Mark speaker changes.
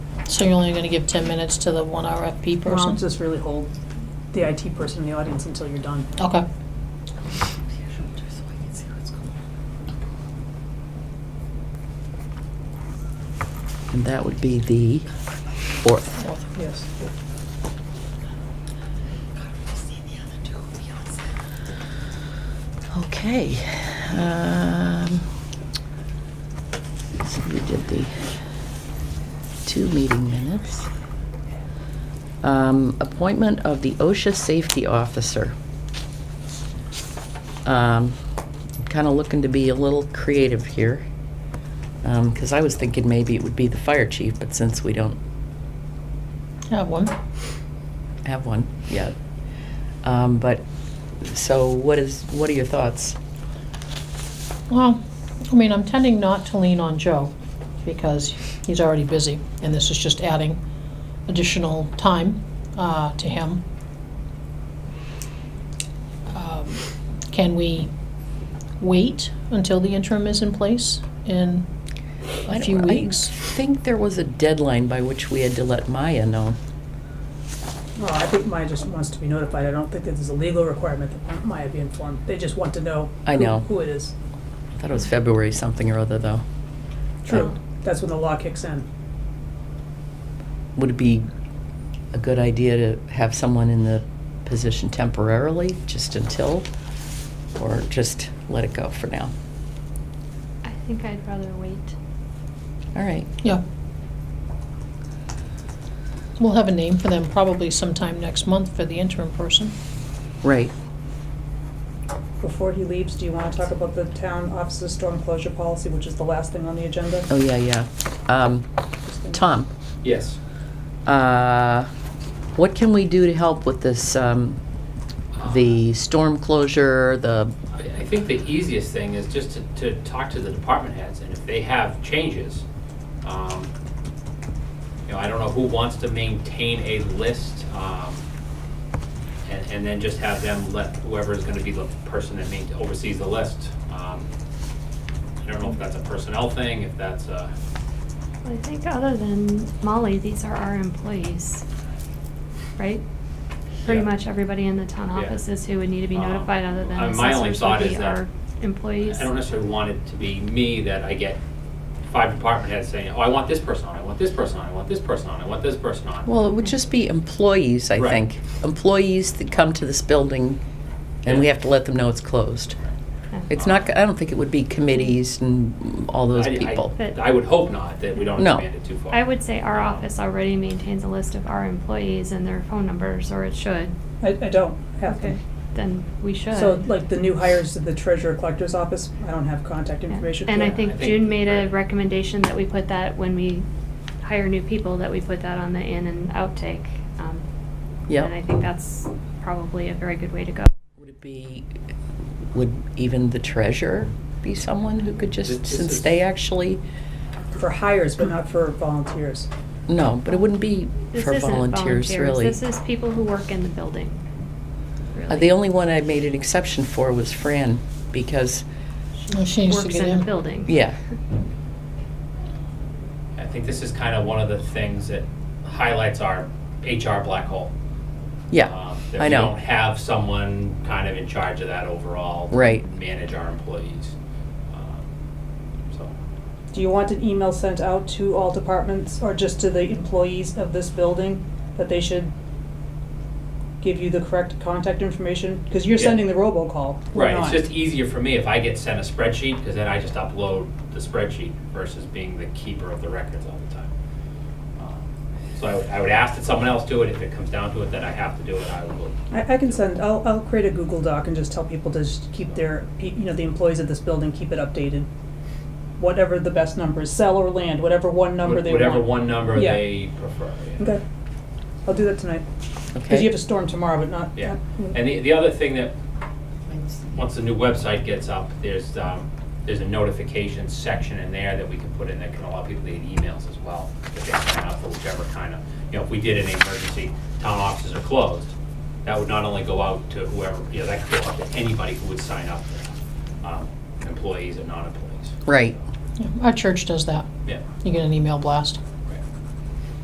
Speaker 1: So you're only gonna give ten minutes to the one RFP
Speaker 2: Well,
Speaker 1: person?
Speaker 2: just really hold the IT person in the audience until you're done.
Speaker 1: Okay.
Speaker 3: And that would be the fourth.
Speaker 2: Yes.
Speaker 3: Okay. um, so We did the two meeting minutes. Um, Appointment of the OSHA Safety Officer. Um, I'm Kind of looking to be a little creative here, because I was thinking maybe it would be the fire chief, but since we don't
Speaker 1: Have one.
Speaker 3: have one yet. Um, But, so what is, what are your thoughts?
Speaker 1: Well, I mean, I'm tending not to lean on Joe because he's already busy and this is just adding additional time uh, to him. Um, Can we wait until the interim is in place in
Speaker 3: I
Speaker 1: a
Speaker 3: don't-
Speaker 1: few
Speaker 3: I
Speaker 1: weeks?
Speaker 3: think there was a deadline by which we had to let Maya know.
Speaker 2: Well, I think Maya just wants to be notified. I don't think that there's a legal requirement that Maya be informed. They just want to know.
Speaker 3: I
Speaker 2: who-
Speaker 3: know.
Speaker 2: Who it is.
Speaker 3: I thought it was February something or other, though. Uh,
Speaker 2: True. That's when the law kicks in.
Speaker 3: Would it be a good idea to have someone in the position temporarily, just until, or just let it go for now?
Speaker 4: I think I'd rather wait.
Speaker 3: All right.
Speaker 1: Yeah. We'll have a name for them probably sometime next month for the interim person.
Speaker 3: Right.
Speaker 2: Before he leaves, do you want to talk about the town offices storm closure policy, which is the last thing on the agenda?
Speaker 3: Oh, yeah, yeah. Um, Tom,
Speaker 5: Yes.
Speaker 3: uh, what can we do to help with this, um, the storm closure, the,
Speaker 5: Uh, I I think the easiest thing is just to, to talk to the department heads, and if they have changes, um, you know, I don't know who wants to maintain a list, um, and, and then just have them let whoever is gonna be the person that main, oversees the list. Um, I don't know if that's a personnel thing, if that's a,
Speaker 4: I think other than Molly, these are our employees, right? Pretty
Speaker 5: Yeah.
Speaker 4: much everybody in the town
Speaker 5: Yeah.
Speaker 4: offices who would need to be
Speaker 5: Uh,
Speaker 4: notified, other than
Speaker 5: uh, my only
Speaker 4: assessors,
Speaker 5: thought
Speaker 4: would
Speaker 5: is
Speaker 4: be
Speaker 5: that-
Speaker 4: our employees.
Speaker 5: I don't necessarily want it to be me that I get five department heads saying, oh, I want this person on, I want this person on, I want this person on, I want this person on.
Speaker 3: Well, it would just be employees, I
Speaker 5: Right.
Speaker 3: think. Employees that come to this building, and we
Speaker 5: Yeah.
Speaker 3: have to let them know it's closed.
Speaker 4: Okay.
Speaker 3: It's not, I don't think it would be committees and all those
Speaker 5: I- I-
Speaker 3: people.
Speaker 4: But-
Speaker 5: I would hope not, that we don't
Speaker 3: No.
Speaker 5: expand it too far. Um,
Speaker 4: I would say our office already maintains a list of our employees and their phone numbers, or it should.
Speaker 2: I, I don't have them.
Speaker 4: Then we should.
Speaker 2: So like the new hires to the treasurer collector's office, I don't have contact
Speaker 4: Yeah.
Speaker 2: information.
Speaker 4: And I
Speaker 2: Yeah.
Speaker 5: I
Speaker 4: think
Speaker 5: think-
Speaker 4: June made a
Speaker 5: right.
Speaker 4: recommendation that we put that when we hire new people, that we put that on the in and outtake. um,
Speaker 3: Yeah.
Speaker 4: And I think that's probably a very good way to go.
Speaker 3: Would it be, would even the treasurer be someone who could just,
Speaker 5: This- this
Speaker 3: since
Speaker 5: is-
Speaker 3: they actually,
Speaker 2: For hires, but not for volunteers.
Speaker 3: no, but it wouldn't be
Speaker 4: This
Speaker 3: for
Speaker 4: isn't
Speaker 3: volunteers, really.
Speaker 4: This is people who work in the building.
Speaker 3: Uh,
Speaker 4: really.
Speaker 3: The only one I made an exception for was Fran, because,
Speaker 1: Well, she needs to
Speaker 4: Works
Speaker 1: get
Speaker 4: in
Speaker 1: in.
Speaker 4: the building.
Speaker 3: yeah,
Speaker 5: I think this is kind of one of the things that highlights our HR black hole.
Speaker 3: yeah,
Speaker 5: Um, that
Speaker 3: I
Speaker 5: we don't
Speaker 3: know.
Speaker 5: have someone kind of in charge of that overall. to
Speaker 3: Right.
Speaker 5: Manage our employees. Um, So,
Speaker 2: Do you want an email sent out to all departments or just to the employees of this building that they should give you the correct contact information? Because you're
Speaker 5: Yeah.
Speaker 2: sending the robocall. we're
Speaker 5: right, it's
Speaker 2: not.
Speaker 5: just e- easier for me if I get sent a spreadsheet, because then I just upload the spreadsheet versus being the keeper of the records all the time. Um, So I would, I would ask that someone else do it, if it comes down to it, that I have to do it, I will.
Speaker 2: I, I can send, I'll, I'll create a Google Doc and just tell people to just keep their, pe- you know, the employees of this building, keep it updated. Whatever the best number is, sell or land, whatever one number they want.
Speaker 5: Whatever one number
Speaker 2: Yeah.
Speaker 5: they prefer. yeah.
Speaker 2: Okay, I'll do that tonight, because you have
Speaker 3: okay.
Speaker 2: a storm tomorrow, but not.
Speaker 5: Yeah,
Speaker 2: not-
Speaker 5: and the, the other thing that, once the new website gets up, there's, um, there's a notification section in there that we can put in that can allow people to get emails as well, if they sign up for whichever kind of, you know, if we did an emergency, town offices are closed, that would not only go out to whoever, you know, that could go out to anybody who would sign up, um, employees and non-employees.
Speaker 3: Right,
Speaker 1: Yeah, Our church does that.
Speaker 5: Yeah,
Speaker 1: You get an email blast.